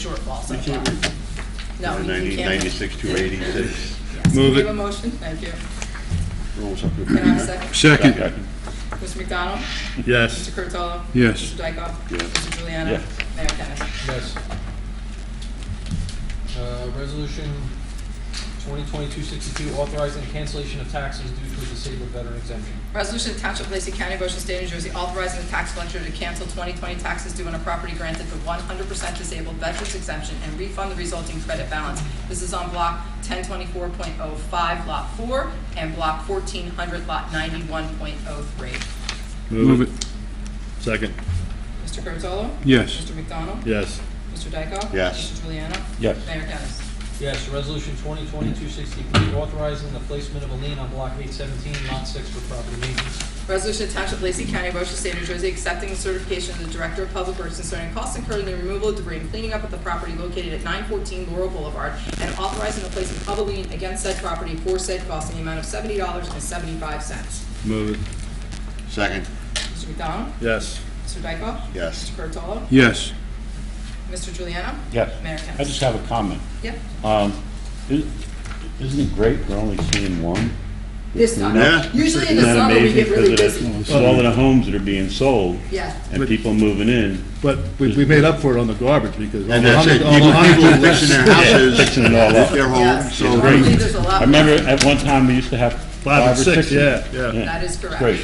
shortfall You can't somehow. read. No, you- you Ninety- can't. Ninety-six to eighty-six, Yes. Move Do you it. have a motion? Thank you. rolls up. Can I have a second? Second, Mr. McDonald? yes. Mr. Curatolo? Yes. Mr. Dykoff? Yes. Mr. Juliana? Yes. Mayor Kennas? Yes. Uh, Resolution 2022-62, authorizing cancellation of taxes due to a disabled veteran exemption. Resolution to Township of Lacey County, Ocean State, New Jersey, authorizing the tax collector to cancel 2020 taxes due on a property granted the 100% disabled veterans exemption and refund the resulting credit balance. This is on Block 1024.05, Lot 4, and Block 1400, Lot 91.03. Move it. Second, Mr. Curatolo? yes. Mr. McDonald? Yes. Mr. Dykoff? Yes. Mr. Juliana? Yes. Mayor Kennas? Yes, Resolution 2022-63, authorizing the placement of a lien on Block 817, Lot 6 for property maintenance. Resolution to Township of Lacey County, Ocean State, New Jersey, accepting the certification of the Director of Public Works concerning costs incurred in the removal of debris and cleaning up at the property located at nine fourteen Laurel Boulevard, and authorizing the placement of a lien against said property for said cost in the amount of seventy dollars and seventy-five cents. Move it, Second, Mr. McDonald? yes. Mr. Dykoff? yes. Mr. Curatolo? Yes. Mr. Juliana? Mayor Yes, Kennas? I just have a comment. Yep. Um, is- Isn't it great we're only seeing one? This Yeah. time. Usually in the Isn't that summer, we amazing get because really of busy. the- all of the homes that are being sold Yeah. and people moving in, But we, we made up for it on the garbage because. And that's it, people people fixing their houses, fixing it all up. their Yes. homes, so. Great. Usually there's a lot. I remember at one time, we used to have Five or six, yeah, yeah. That is correct. Great.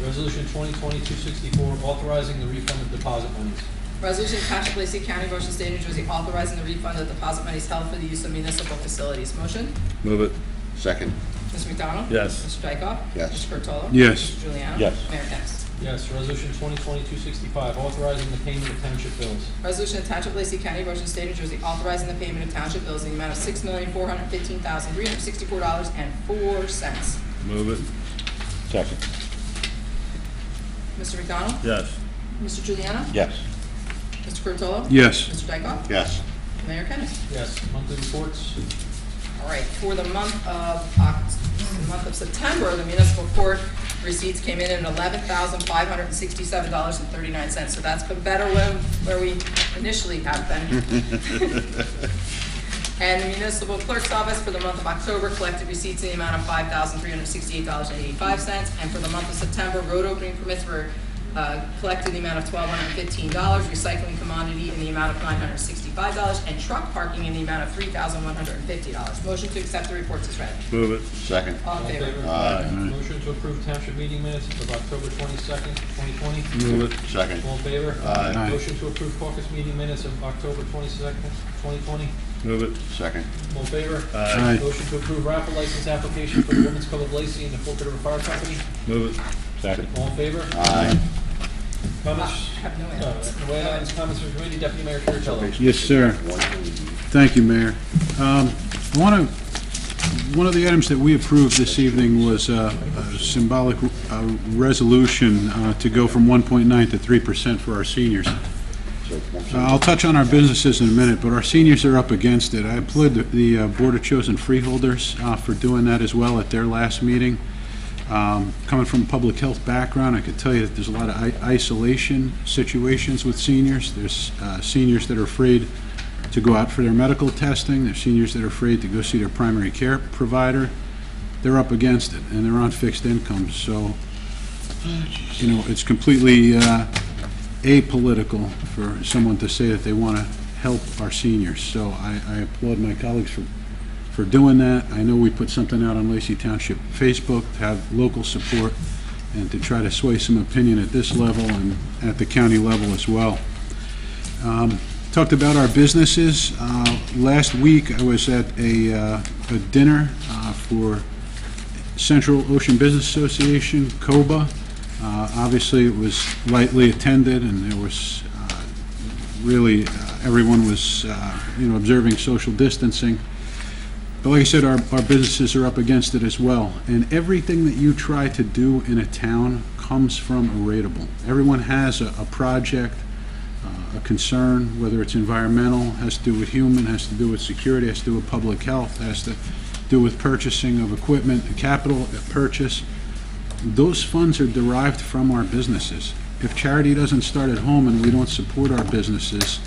Resolution 2022-64, authorizing the refund of deposit monies. Resolution to Township of Lacey County, Ocean State, New Jersey, authorizing the refund of deposit monies held for the use of municipal facilities. Motion? Move it, Second, Mr. McDonald? Yes. Mr. Dykoff? Yes. Mr. Curatolo? Yes. Mr. Juliana? Yes. Mayor Kennas. Yes, Resolution 2022-65, authorizing the payment of township bills. Resolution to Township of Lacey County, Ocean State, New Jersey, authorizing the payment of township bills in the amount of six million, four hundred fifteen thousand, three hundred sixty-four dollars and four cents. move it, Second, Mr. McDonald? yes. Mr. Juliana? yes. Mr. Curatolo? Yes. Mr. Dykoff? yes. Mayor Kennas. Yes, monthly reports. All right, for the month of, Oct- the month of September, the municipal court receipts came in at eleven thousand five hundred and sixty-seven dollars and thirty-nine cents. So that's been better than where we initially have been. And the municipal clerk's office for the month of October collected receipts in the amount of five thousand three hundred and sixty-eight dollars and eighty-five cents. And for the month of September, road opening permits were, uh, collected in the amount of twelve hundred and fifteen dollars, recycling commodity in the amount of nine hundred and sixty-five dollars, and truck parking in the amount of three thousand one hundred and fifty dollars. Motion to accept the reports is read. Move it, Second, All in favor? Motion to approve township meeting minutes of October 22nd, 2020. move it, second, All in favor? Aye. Motion to approve caucus meeting minutes of October twenty-second, twenty-twenty. move it, second, All in favor? Aye. Motion to approve raffle license application for the Women's Club of Lacey and the Fort River Fire Company. move it. Second, All in favor? aye. I Comments? have no Uh, answers. no items, comments from committee, Deputy Mayor Kuratello. Yes, sir. Thank you, Mayor. Um, I want to, one of the items that we approved this evening was uh, a symbolic uh, resolution uh, to go from 1.9 to 3% for our seniors. So, one Uh, I'll touch on our businesses in a minute, but our seniors are up against it. I applaud the- the uh, Board of Chosen Freeholders uh, for doing that as well at their last meeting. Um, Coming from a public health background, I could tell you that there's a lot of i- isolation situations with seniors. There's uh, seniors that are afraid to go out for their medical testing, there's seniors that are afraid to go see their primary care provider. They're up against it, and they're on fixed incomes, so, you know, it's completely uh, apolitical for someone to say that they want to help our seniors. So I, I applaud my colleagues for, for doing that. I know we put something out on Lacey Township Facebook to have local support and to try to sway some opinion at this level and at the county level as well. Um, Talked about our businesses. Uh, Last week, I was at a, uh, a dinner uh, for Central Ocean Business Association, COBA. Uh, Obviously, it was lightly attended, and there was, uh, really, uh, everyone was, uh, you know, observing social distancing. But like I said, our, our businesses are up against it as well. And everything that you try to do in a town comes from a rateable. Everyone has a, a project, uh, a concern, whether it's environmental, has to do with human, has to do with security, has to do with public health, has to do with purchasing of equipment, capital purchase. Those funds are derived from our businesses. If charity doesn't start at home and we don't support our businesses,